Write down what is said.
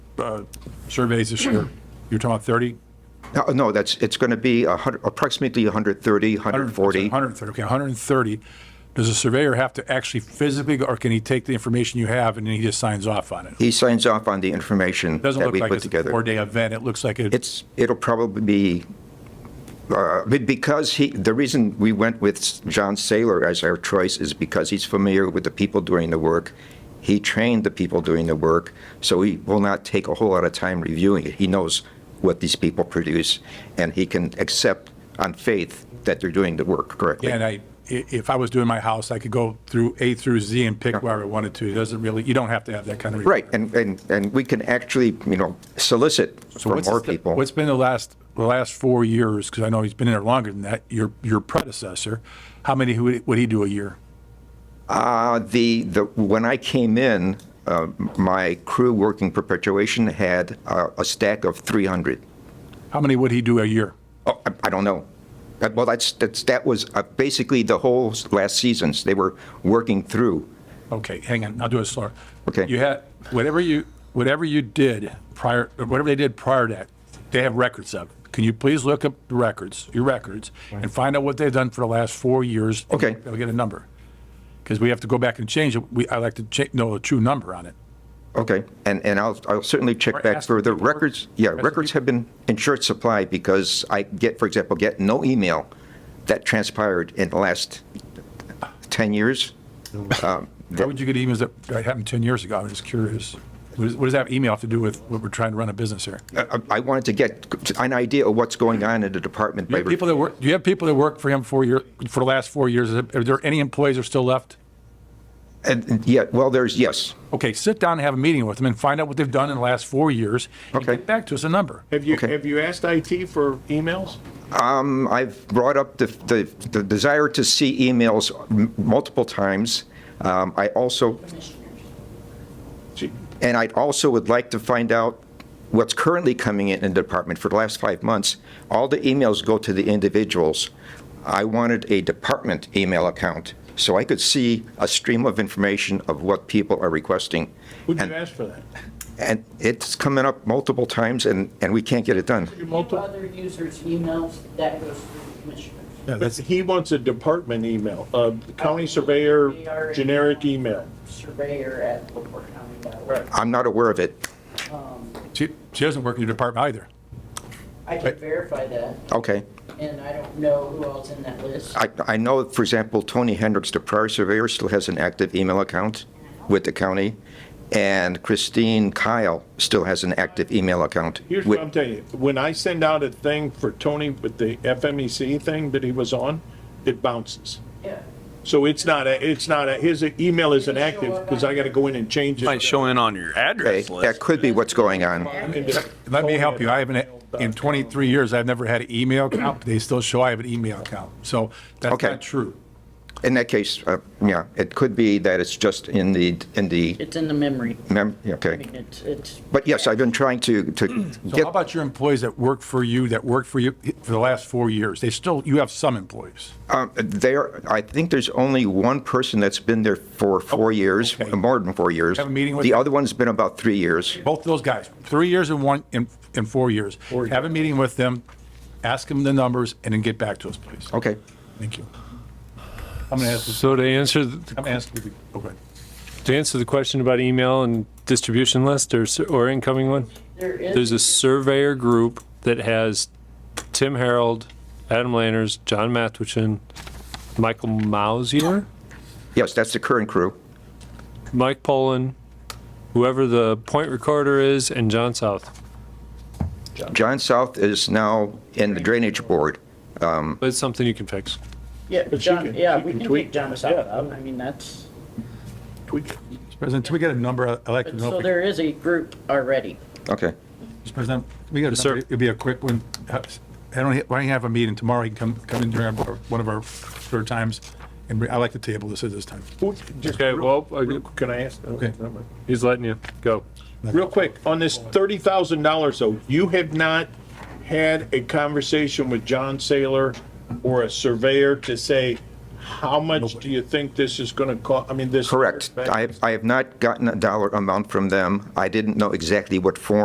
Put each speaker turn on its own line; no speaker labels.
uh, surveys this year, you're talking about 30?
No, No, that's, it's going to be a hundred- approximately 130, 140.
130, okay, 130. Does the surveyor have to actually physically, go- or can he take the information you have and then he just signs off on it?
He signs off on the information
Doesn't
that
look
we
like
put
it's a
together.
four-day event, it looks like it,
It's, it'll probably be, uh, be- because he, the reason we went with John Saylor as our choice is because he's familiar with the people doing the work. He trained the people doing the work, so he will not take a whole lot of time reviewing it. He knows what these people produce, and he can accept on faith that they're doing the work correctly.
and I, i- if I was doing my house, I could go through A through Z and pick where I wanted to. It doesn't really, you don't have to have that kind of.
Right, and, and, and we can actually, you know, solicit
So
for
what's the
more
sta-
people.
What's been the last, the last four years, because I know he's been in there longer than that, your, your predecessor, how many would would he do a year?
Uh, The, the, when I came in, uh, my crew working perpetuation had uh, a stack of 300.
How many would he do a year?
Oh, I- I don't know. Uh, Well, that's, that's, that was uh, basically the whole s- last seasons. They were working through.
Okay, hang on, I'll do it slower.
Okay.
You had, whatever you, whatever you did prior, or whatever they did prior to that, they have records of. it. Can you please look up the records, your records, and find out what they've done for the last four years? and
Okay.
They'll get a number. Because we have to go back and change it. We, I like to cha, know a true number on it.
Okay, and, and I'll, I'll certainly check
Or
back
ask
for the
people who-
records. Yeah,
ask the
records
people-
have been in short supply because I get, for example, get no email that transpired in the last 10 years. Um,
How
that-
would you get emails that that happened 10 years ago? I'm just curious. What does, what does that email have to do with what we're trying to run a business here?
I uh, I wanted to get an idea of what's going on in the department.
Do you have
by
people that work, do you have people that work for him for your, for the last four years? Is it- Are there any employees that are still left?
And, and yeah, well, there's, yes.
Okay, sit down and have a meeting with them and find out what they've done in the last four years. and
Okay.
Get back to us a number.
Have you,
Okay.
have you asked IT for emails?
Um, I've brought up the, the, the desire to see emails m- multiple times. Um, I also,
Gee,
and I also would like to find out what's currently coming in in the department for the last five months. All the emails go to the individuals. I wanted a department email account so I could see a stream of information of what people are requesting.
Would you
And-
ask for that?
And it's coming up multiple times, and, and we can't get it done.
Your
Multiple
multi-
other users' emails, that goes through the commissioners.
But He wants a department email, a county surveyor, generic email.
Surveyor at LaporteCounty.org.
I'm not aware of it.
She, she doesn't work in your department either.
Um, I can verify that,
Okay.
and I don't know who else in that list.
I, I know, for example, Tony Hendricks, the prior surveyor, still has an active email account with the county, and Christine Kyle still has an active email account.
Here's
with-
what I'm telling you, when I send out a thing for Tony with the FMEC thing that he was on, it bounces.
Yeah.
So it's not a, it's not a, his email isn't active because I got to go in and change it.
Might show in on your
Okay,
address
that
list.
could be what's going on.
Let me help you. I haven't, in 23 years, I've never had an email account, but they still show I have an email account. So that's
Okay.
not true.
In that case, uh, yeah, it could be that it's just in the, in the,
It's in the memory.
mem-
I
okay.
mean, it's, it's,
But yes, I've been trying to, to
So
get,
how about your employees that work for you, that worked for you for the last four years? They still, you have some employees.
um, there, I think there's only one person that's been there for four years,
Oh,
uh,
okay.
more than four years.
Have a meeting with
The
them?
other one's been about three years.
Both of those guys, three years and one, in in four years. Have a meeting with them, ask them the numbers, and then get back to us, please.
Okay.
Thank you. I'm going to ask,
So to answer, th-
I'm going to ask, you to- oh, go ahead.
to answer the question about email and distribution list or, s- or incoming one,
there is.
there's a surveyor group that has Tim Harold, Adam Lanners, John Mathewson, Michael Mausier,
Yes, that's the current crew.
Mike Pollan, whoever the point recorder is, and John South.
John South is now in the Drainage Board.
But it's something you can fix.
Yeah,
But she
John,
can-
yeah,
she
we
can
can
tweak
take John
that,
South
yeah.
out. I mean, that's,
Tweak it.
President, can we get a number? I'd like to
but
know. if
so
we-
there is a group already.
Okay.
Mr. President, can we get a
Yes, sir.
number? It'd be a quick one. Uh, I don't, why don't you have a meeting tomorrow? You can come, come in during our- one of our third times. And we- I like to table this at this time.
Who- just
Okay,
real-
well, I-
real- Can I ask? Okay. never mind.
He's letting you go.
Real quick, on this thirty thousand dollars though, you have not had a conversation with John Saylor or a surveyor to say, how much do you think this is gonna cost? I mean, this.
Correct. I, I have not gotten a dollar amount from them. I didn't know exactly what form